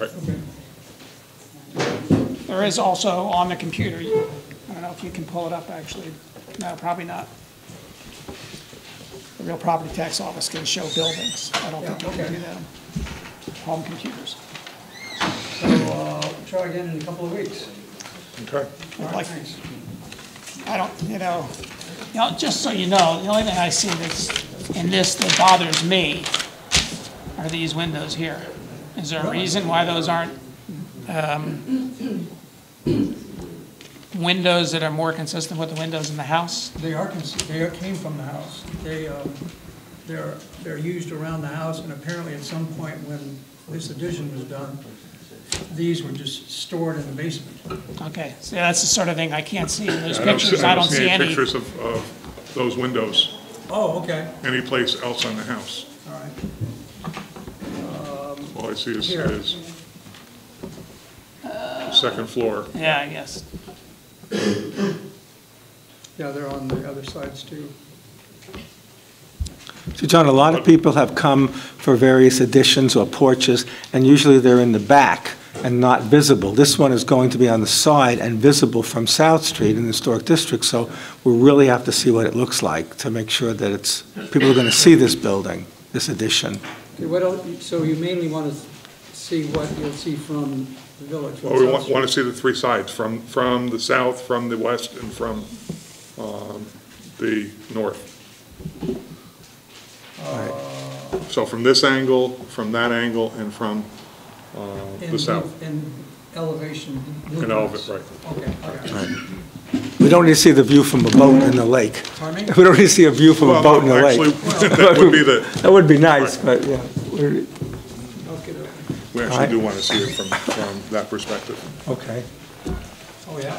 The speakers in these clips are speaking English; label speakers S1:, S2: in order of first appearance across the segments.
S1: Right.
S2: There is also on the computer, I don't know if you can pull it up, actually. No, probably not. The real property tax office can show buildings. I don't think you
S3: Yeah,
S2: can
S3: okay.
S2: do that on home computers.
S3: So, uh, try again in a couple of weeks.
S1: Okay.
S2: I'd like-
S3: Thanks.
S2: I don't, you know, you know, just so you know, the only thing I see that's in this that bothers me are these windows here. Is there a reason why those aren't, um, windows that are more consistent with the windows in the house?
S3: They are, cons- they are- came from the house. They, um, they're, they're used around the house, and apparently at some point when this addition was done, these were just stored in the basement.
S2: Okay, so that's the sort of thing I can't see in those
S1: I don't see-
S2: pictures. I don't see
S1: any
S2: any.
S1: pictures of, of those windows
S3: Oh, okay,
S1: anyplace else on the house.
S3: all right.
S1: All I see is,
S3: Here.
S1: is second floor.
S2: Yeah, I guess.
S3: Yeah, they're on the other sides too.
S4: So John, a lot of people have come for various additions or porches, and usually they're in the back and not visible. This one is going to be on the side and visible from South Street in the Historic District, so we really have to see what it looks like to make sure that it's, people are going to see this building, this addition.
S3: Okay, what else, so you mainly want to see what you'll see from the village?
S1: Well, we want, want to see the three sides, from, from the south, from the west, and from, um, the north. So from this angle, from that angle, and from, uh, the south.
S3: In elevation.
S1: In elevate, right.
S3: Okay, all right.
S4: We don't need to see the view from a boat in the lake.
S3: Pardon me?
S4: We don't need to see a view from a
S1: Well,
S4: boat in the
S1: Actually,
S4: lake.
S1: that would be the,
S4: That would be nice, but, yeah. we're-
S3: Okay,
S1: we actually do want to see it from, from that perspective,
S4: Okay.
S3: oh, yeah.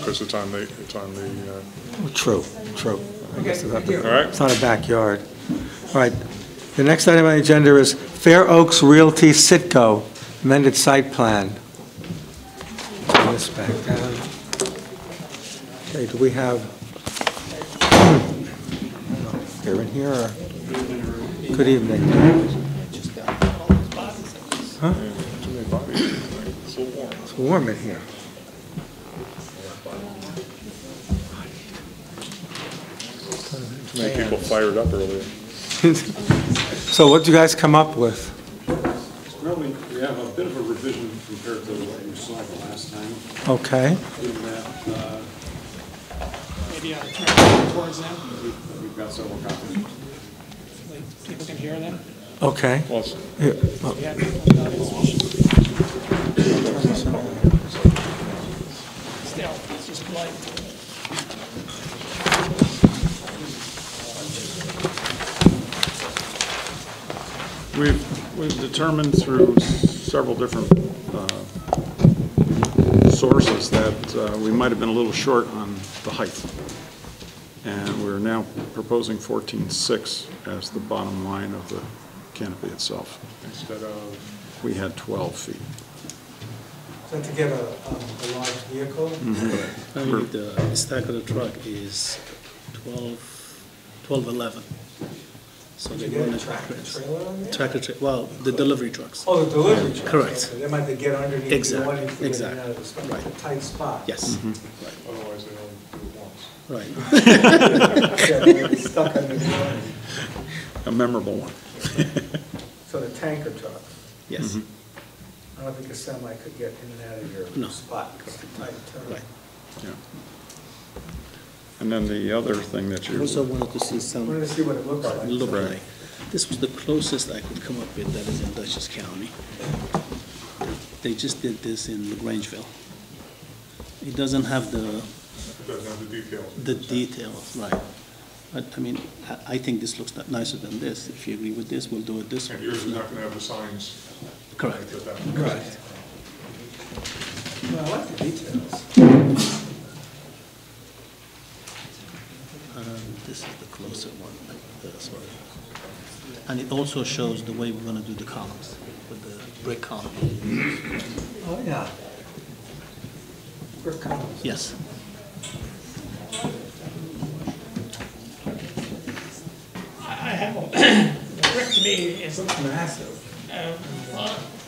S1: because it's on the, it's on the, uh,
S4: Well, True, true. I guess we'll have to-
S1: all right?
S4: It's not a backyard. All right, the next item on the agenda is Fair Oaks Realty Sitco amended site plan. Turn this back down. Okay, do we have, here in here, or? Good evening.
S1: It's a little warm.
S4: It's warm in here.
S1: Too many people fired up earlier.
S4: So what'd you guys come up with?
S5: Well, we, we have a bit of a revision compared to what you saw the last time,
S4: Okay,
S5: in that, uh,
S2: Maybe I'll turn it towards them,
S5: we've, we've got several copies.
S2: like, people can hear them.
S4: okay.
S1: Well, it's-
S4: Here, oh,
S2: Yeah. Still, it's just polite.
S5: We've, we've determined through several different uh, sources that uh, we might have been a little short on the height. And we're now proposing 14.6 as the bottom line of the canopy itself. Instead of? We had 12 feet.
S4: So to get a, um, a large vehicle?
S6: Mm-hmm. I mean, the stack of the truck is 12, 12, 11. So they want to
S4: trailer on there?
S6: Tractor, tra- well, the delivery trucks.
S4: Oh, the delivery truck.
S6: Correct.
S4: So They might have to get underneath.
S6: Exactly,
S4: the awning to get in
S6: exactly,
S4: and out of the spot.
S6: right.
S4: It's a Tight spot.
S6: Yes,
S1: Otherwise, they only do it once.
S6: right.
S4: Yeah, they're Stuck under the awning.
S5: A memorable one.
S4: So the tanker truck,
S6: Yes,
S4: I don't think a semi could get in and out of
S6: No.
S4: your spot. 'cause it's a tight turn.
S6: right.
S5: Yeah. And then the other thing that
S6: I
S5: you,
S6: also wanted to see
S4: I wanted
S6: some,
S4: to see what it looked like.
S6: look
S5: Right.
S6: like, this was the closest I could come up with that is in Dutchess County. They just did this in Grangeville. It doesn't have the,
S1: It doesn't have the details.
S6: the details, right. But, I mean, I- I think this looks nicer than this. If you agree with this, we'll do it this way.
S1: And yours is not going to have the signs.
S6: Correct.
S1: like that.
S6: Correct.
S4: No, I like the details.
S6: Um, This is the closer one, like this one. And it also shows the way we're gonna do the columns, with the brick column.
S4: Oh, yeah. Brick columns.
S6: Yes.
S2: I I have, a- brick to me is,
S4: Massive.
S2: uh, well,